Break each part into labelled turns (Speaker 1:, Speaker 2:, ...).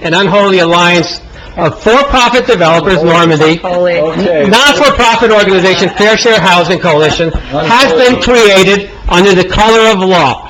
Speaker 1: an unholy alliance of for-profit developers, Normandy, Oh,
Speaker 2: Okay.
Speaker 1: non-for-profit organization Fair Share Housing Coalition has been created under the color of law.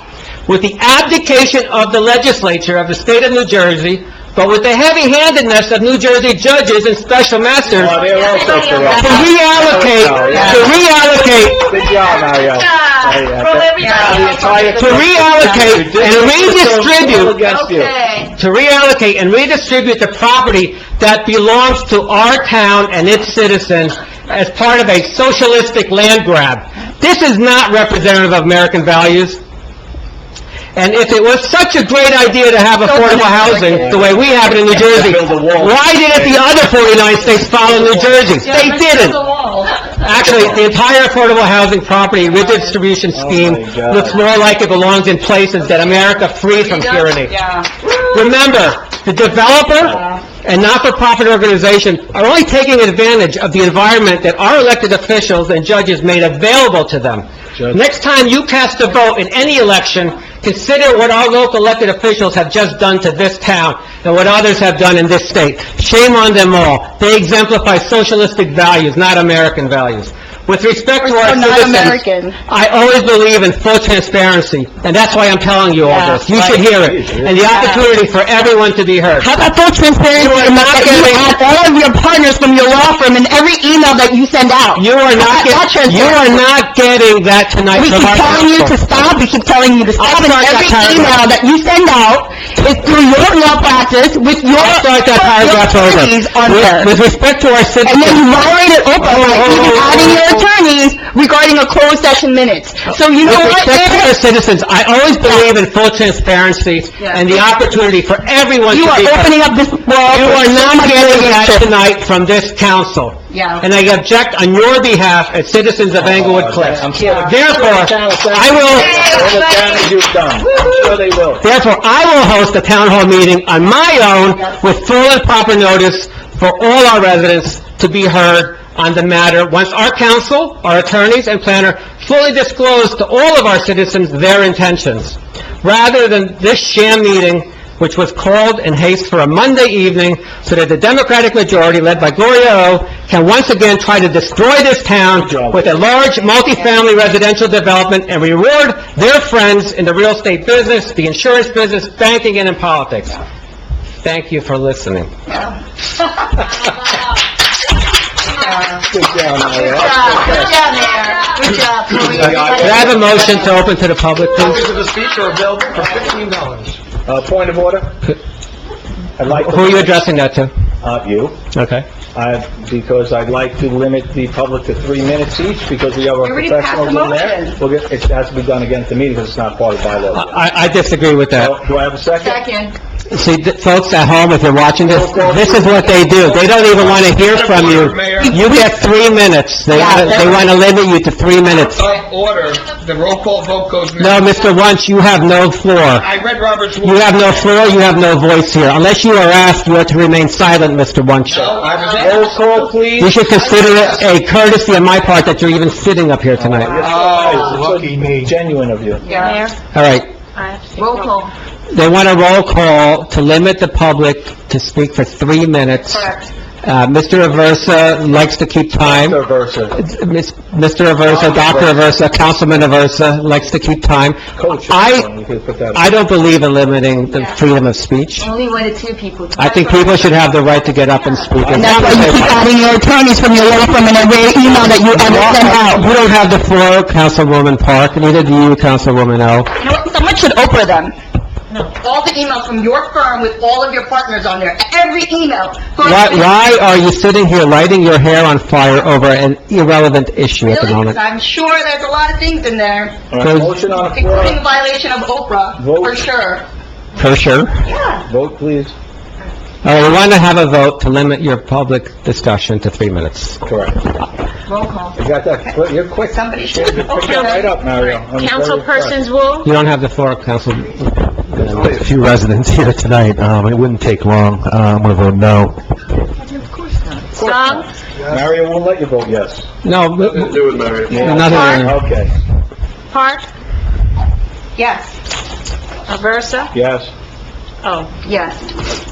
Speaker 1: With the abdication of the legislature of the state of New Jersey, but with the heavy-handedness of New Jersey judges and special masters,
Speaker 2: Oh, they're also
Speaker 1: to
Speaker 2: corrupt.
Speaker 1: reallocate, to reallocate,
Speaker 2: Good job, Mario.
Speaker 3: From everybody.
Speaker 1: to reallocate and redistribute
Speaker 2: Against you.
Speaker 3: Okay.
Speaker 1: to reallocate and redistribute the property that belongs to our town and its citizens as part of a socialistic land grab. This is not representative of American values. And if it was such a great idea to have affordable housing, the way we have it in New Jersey, why didn't the other 49 states follow New Jersey? They didn't. Actually, the entire affordable housing property redistribution scheme
Speaker 2: my God.
Speaker 1: looks more like it belongs in places that America free from tyranny. Remember, the developer and not-for-profit organization are only taking advantage of the environment that our elected officials and judges made available to them.
Speaker 2: Judge.
Speaker 1: Next time you cast a vote in any election, consider what our local elected officials have just done to this town and what others have done in this state. Shame on them all. They exemplify socialistic values, not American values. With respect to our
Speaker 4: We're so not
Speaker 1: citizens,
Speaker 4: American.
Speaker 1: I always believe in full transparency, and that's why I'm telling you all this. You should hear it, and the opportunity for everyone to be heard.
Speaker 4: How about full transparency
Speaker 1: You are
Speaker 4: in
Speaker 1: not
Speaker 4: the fact that you
Speaker 1: giving-
Speaker 4: have all of your partners from your law firm in every email that you send out?
Speaker 1: You are not,
Speaker 4: Not- not
Speaker 1: get- you are not getting that tonight
Speaker 4: We
Speaker 1: from
Speaker 4: keep
Speaker 1: our
Speaker 4: telling you to
Speaker 1: council.
Speaker 4: stop, we keep telling you to stop, and
Speaker 1: start that
Speaker 4: every
Speaker 1: paragraph.
Speaker 4: email that you send out is through your law practice with your...
Speaker 1: I'll start that paragraph
Speaker 4: your
Speaker 1: over.
Speaker 4: attorneys on
Speaker 1: With-
Speaker 4: there.
Speaker 1: With respect to our
Speaker 4: And then you
Speaker 1: citizens,
Speaker 4: violated OPA
Speaker 1: Oh,
Speaker 4: by
Speaker 1: oh,
Speaker 4: even
Speaker 1: oh,
Speaker 4: adding your
Speaker 1: oh.
Speaker 4: attorneys regarding a closed session minutes. So you know
Speaker 1: with
Speaker 4: what,
Speaker 1: respect to
Speaker 4: Mayor?
Speaker 1: our citizens, I always believe in full transparency and the opportunity for everyone to
Speaker 4: You
Speaker 1: be
Speaker 4: are
Speaker 1: heard.
Speaker 4: opening up this world.
Speaker 1: You
Speaker 4: for
Speaker 1: are
Speaker 4: so
Speaker 1: not
Speaker 4: much
Speaker 1: getting that
Speaker 4: litigation.
Speaker 1: tonight from this council.
Speaker 4: Yeah.
Speaker 1: And I object on your behalf as citizens of Englewood Cliffs.
Speaker 2: I'm sure-
Speaker 1: Therefore, I will,
Speaker 2: All the damage you've done. I'm sure they will.
Speaker 1: therefore, I will host a town hall meeting on my own with full and proper notice for all our residents to be heard on the matter once our council, our attorneys, and planner fully disclose to all of our citizens their intentions, rather than this sham meeting which was called in haste for a Monday evening so that the Democratic majority led by Gloria O. can once again try to destroy this town
Speaker 2: job.
Speaker 1: with a large multifamily residential development and reward their friends in the real estate business, the insurance business, banking, and in politics. Thank you for listening.
Speaker 2: Good job, Mario.
Speaker 3: Good job, Mayor. Good job.
Speaker 1: Could I have a motion to open to the public, please?
Speaker 2: Copies of the speech are available for fifteen dollars. Uh, point of order? I'd like to...
Speaker 1: Who are you addressing that to?
Speaker 2: Uh, you.
Speaker 1: Okay.
Speaker 2: I, because I'd like to limit the public to three minutes each, because we have our
Speaker 3: already passed
Speaker 2: professionals
Speaker 3: the
Speaker 2: in there.
Speaker 3: motion.
Speaker 2: We'll get, it has to be done again at the meeting, because it's not part of bylaw.
Speaker 1: I, I disagree with that.
Speaker 2: So, Do I have a second?
Speaker 3: Second.
Speaker 1: See, th- folks at home, if you're watching this, this is what they do. They don't even want to hear from you. You get three minutes. They want to, they want to limit you to three minutes.
Speaker 5: of order, the roll call vote goes now.
Speaker 1: No, Mr. Wunsch, you have no floor.
Speaker 5: I read Robert's
Speaker 1: You
Speaker 5: rules.
Speaker 1: have no floor, you have no voice here. Unless you are asked, you are to remain silent, Mr. Wunsch.
Speaker 5: I was
Speaker 2: Roll call, please.
Speaker 1: You should consider it a courtesy on my part that you're even sitting up here tonight.
Speaker 2: Oh, lucky me. Genuine of you.
Speaker 3: Yeah.
Speaker 1: All right.
Speaker 3: Roll call.
Speaker 1: They want a roll call to limit the public to speak for three minutes.
Speaker 3: Correct.
Speaker 1: Uh, Mr. Aversa likes to keep time.
Speaker 2: Mr. Versa.
Speaker 1: Miss- Mr. Aversa, Dr. Aversa, Councilman Aversa likes to keep time.
Speaker 2: Coach. uh,
Speaker 1: I-
Speaker 2: You could put that-
Speaker 1: I don't believe in limiting the freedom of speech.
Speaker 3: Only one or two people.
Speaker 1: I think people should have the right to get up and speak.
Speaker 4: And that's why you keep adding your attorneys from your law firm in every email that you ever send out.
Speaker 1: You don't have the floor, Councilwoman Park, neither do you, Councilwoman O.
Speaker 4: You know what, someone should Oprah them. All the emails from your firm with all of your partners on there, every email.
Speaker 1: Why, why are you sitting here lighting your hair on fire over an irrelevant issue at the
Speaker 4: Really,
Speaker 1: moment?
Speaker 4: because I'm sure there's a lot of things in there,
Speaker 2: All right, Motion on the
Speaker 4: including
Speaker 2: floor.
Speaker 4: violation of Oprah, for
Speaker 2: Vote.
Speaker 4: sure.
Speaker 1: For sure. All
Speaker 2: Vote, please.
Speaker 1: right, we want to have a vote to limit your public discussion to three minutes.
Speaker 2: Correct.
Speaker 4: Roll call.
Speaker 2: You got that? Quick- You're quick.
Speaker 4: Somebody
Speaker 2: You're
Speaker 4: should.
Speaker 2: picking it right up, Mario. I'm very impressed.
Speaker 6: Councilperson's rule?
Speaker 1: You don't have the floor, Council,
Speaker 7: a few residents here tonight, um, it wouldn't take long, uh, I'm gonna vote no.
Speaker 6: Song?
Speaker 2: Mario won't let you vote yes.
Speaker 1: no, w- w- another,
Speaker 2: Okay,
Speaker 6: Park?
Speaker 3: Yes,
Speaker 6: Aversa?
Speaker 2: yes.
Speaker 6: Oh.
Speaker 3: yes.